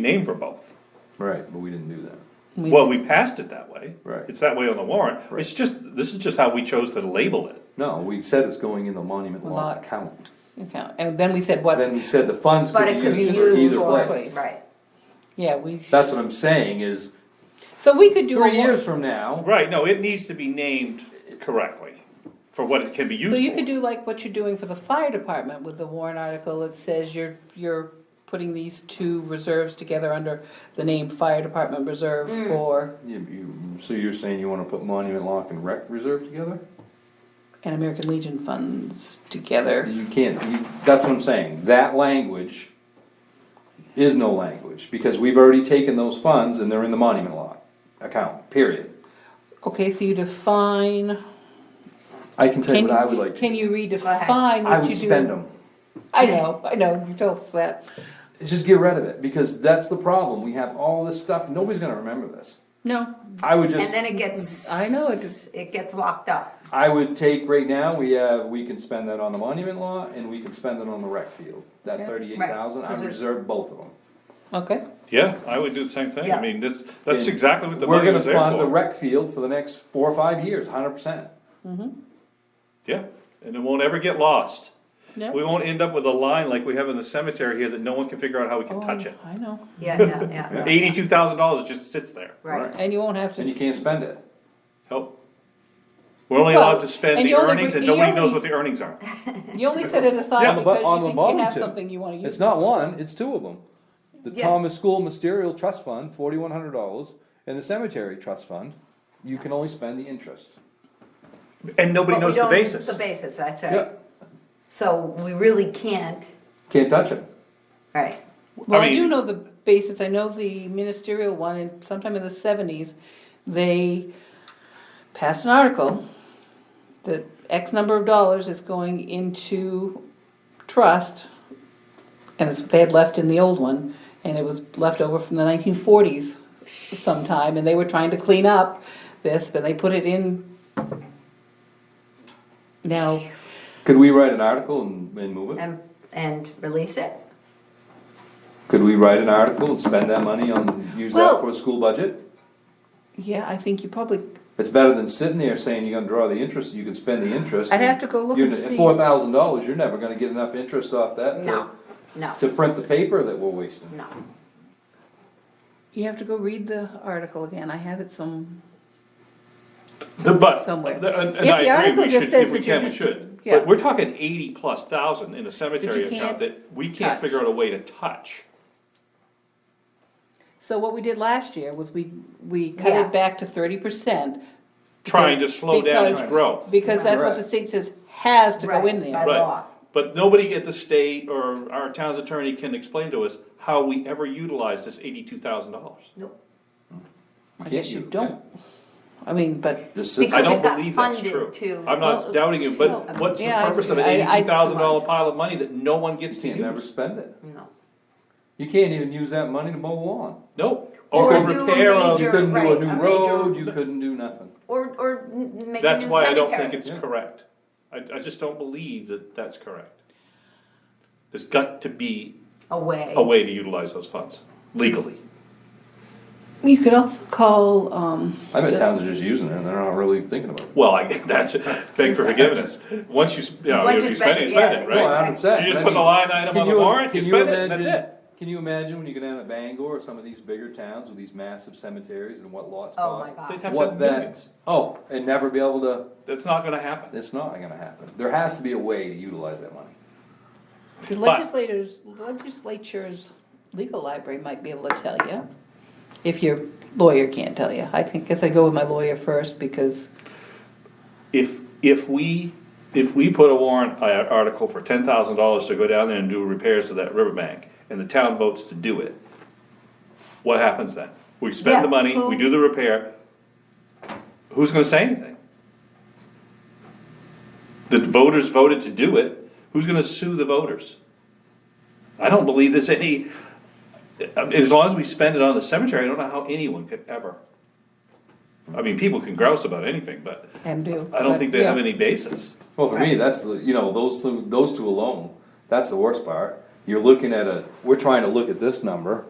name for both. Right, but we didn't do that. We- Well, we passed it that way. Right. It's that way on the warrant. Right. It's just, this is just how we chose to label it. No, we said it's going in the monument lot Lot. account. account. And then we said what, Then we said the funds But could it could be be used for used either for, place. right, yeah, we, That's what I'm saying is, so we could do. a three war- years from now, Right, no, it needs to be named correctly for what it can be used So for. you could do like what you're doing for the fire department with the Warren article that says you're, you're putting these two reserves together under the name Fire Department Reserve Mm. for you, you, so you're saying you wanna put monument lock and rec reserve together? an American Legion funds together. You can't, you, that's what I'm saying, that language is no language, because we've already taken those funds and they're in the monument lot account, period. Okay, so you define. I can tell you Can what I would like to, Can you redefine ahead. I what you would do? spend them. I know, I know, you told us that. Just get rid of it, because that's the problem, we have all this stuff, nobody's gonna remember this. No, I would just, and then it gets. I know, it just- It gets locked up, I would take right now, we have, we can spend that on the monument law and we can spend it on the rec field. That Yeah. thirty-eight thousand, I Right. would reserve both of them. okay, Yeah, I would do the same thing. I Yeah. mean, this, that's And exactly what the We're money gonna was there fund the for. rec field for the next four or five years, hundred percent. Yeah, and it won't ever get lost. We no. won't end up with a line like we have in the cemetery here that no one can figure out how we can Oh, touch it. I know, yeah, yeah, yeah, Yeah. Eighty-two thousand dollars just sits there. right, and you won't have And you to, can't spend it. Help. We're only Well, allowed to spend and the you only earnings bring- and you nobody only- knows what the earnings are. you only set it Yeah, aside on the bu- because on you the think you bottom have two. something you wanna use. It's not one, it's two of them. The Yeah. Thomas School Mysterial Trust Fund, forty-one hundred dollars, and the Cemetery Trust Fund, you can only spend the interest. And nobody But we knows the don't- basis. The basis, that's Yeah, right, so we really can't, can't touch it. right, Well, I mean- do know the basis, I know the ministerial one, and sometime in the seventies, they passed an article that X number of dollars is going into trust, and it's what they had left in the old one, and it was left over from the nineteen forties sometime, and they were trying to clean up this, but they put it in. Now, Could we write an article and, and move it? and, and release it, Could we write an article and spend that money on, use that Well- for the school budget? yeah, I think you probably, It's better than sitting there saying you're gonna draw the interest, you can spend the interest. I'd have to go look and see. Four thousand dollars, you're never gonna get enough interest off that no, to, no, to print the paper that we're wasting. no. you have to go read the article again, I have it some. The but, somewhere. the- and If and I the agree, article we just should, says if we that you're can, we just- should. yeah. But we're talking eighty plus thousand in a cemetery account can't that we can't touch. figure out a way to touch. So what we did last year was we, we cut Yeah. it back to thirty percent. Trying to slow down its growth. Because that's what the Correct. state says has to go Right, in there. by Right, law. but nobody at the state or our town's attorney can explain to us how we ever utilize this eighty-two thousand dollars. Nope. You I can't guess you use it. don't, I mean, but, Just sits I Because there. don't it got believe that's funded true. to- I'm not Well, doubting it, but no. what's the Yeah, I purpose of an agree. I- I- eighty-two thousand dollar pile of money that no one gets to You can never use? spend it. No. You can't even use that money to mow lawn. Nope. Or Or a do a repair of, major- You couldn't do a right, new a major- road, you couldn't do nothing. Or, or n- make a that's new why I don't cemetery. think it's Yeah. correct. I, I just don't believe that that's correct. There's got to be Away. a way to utilize those funds legally. you could also call, um, I bet towns are just using it and they're not really thinking about it. Well, I, that's, beg for forgiveness. Once you, s- you know, Once if you you spend spend it, it, you spend it, yeah, No, right? yeah. hundred percent. You just Oh, I put mean, the line item can on the you- warrant, you can you spend it, and that's imagine- it. Can you imagine when you go down to Bangor or some of these bigger towns with these massive cemeteries and what lots Oh my cost? God. They'd have to What have that, millions. oh, and never be able to, That's not gonna happen. it's not gonna happen. There has to be a way to utilize that money. the legislators, legislature's legal library might be able to tell you. If your lawyer can't tell you. I think, guess I go with my lawyer first because, If, if we, if we put a warrant i- article for ten thousand dollars to go down there and do repairs to that riverbank, and the town votes to do it, what happens then? We Yeah, spend the money, we who- do the repair, who's gonna say anything? The voters voted to do it, who's gonna sue the voters? I don't believe there's any, as long as we spend it on the cemetery, I don't know how anyone could ever. I mean, people can grouse about anything, but and do. I don't but, think they have yeah. any basis. Well, for me, that's the, you know, those, two- those two alone, that's the worst part. You're looking at a, we're trying to look at this number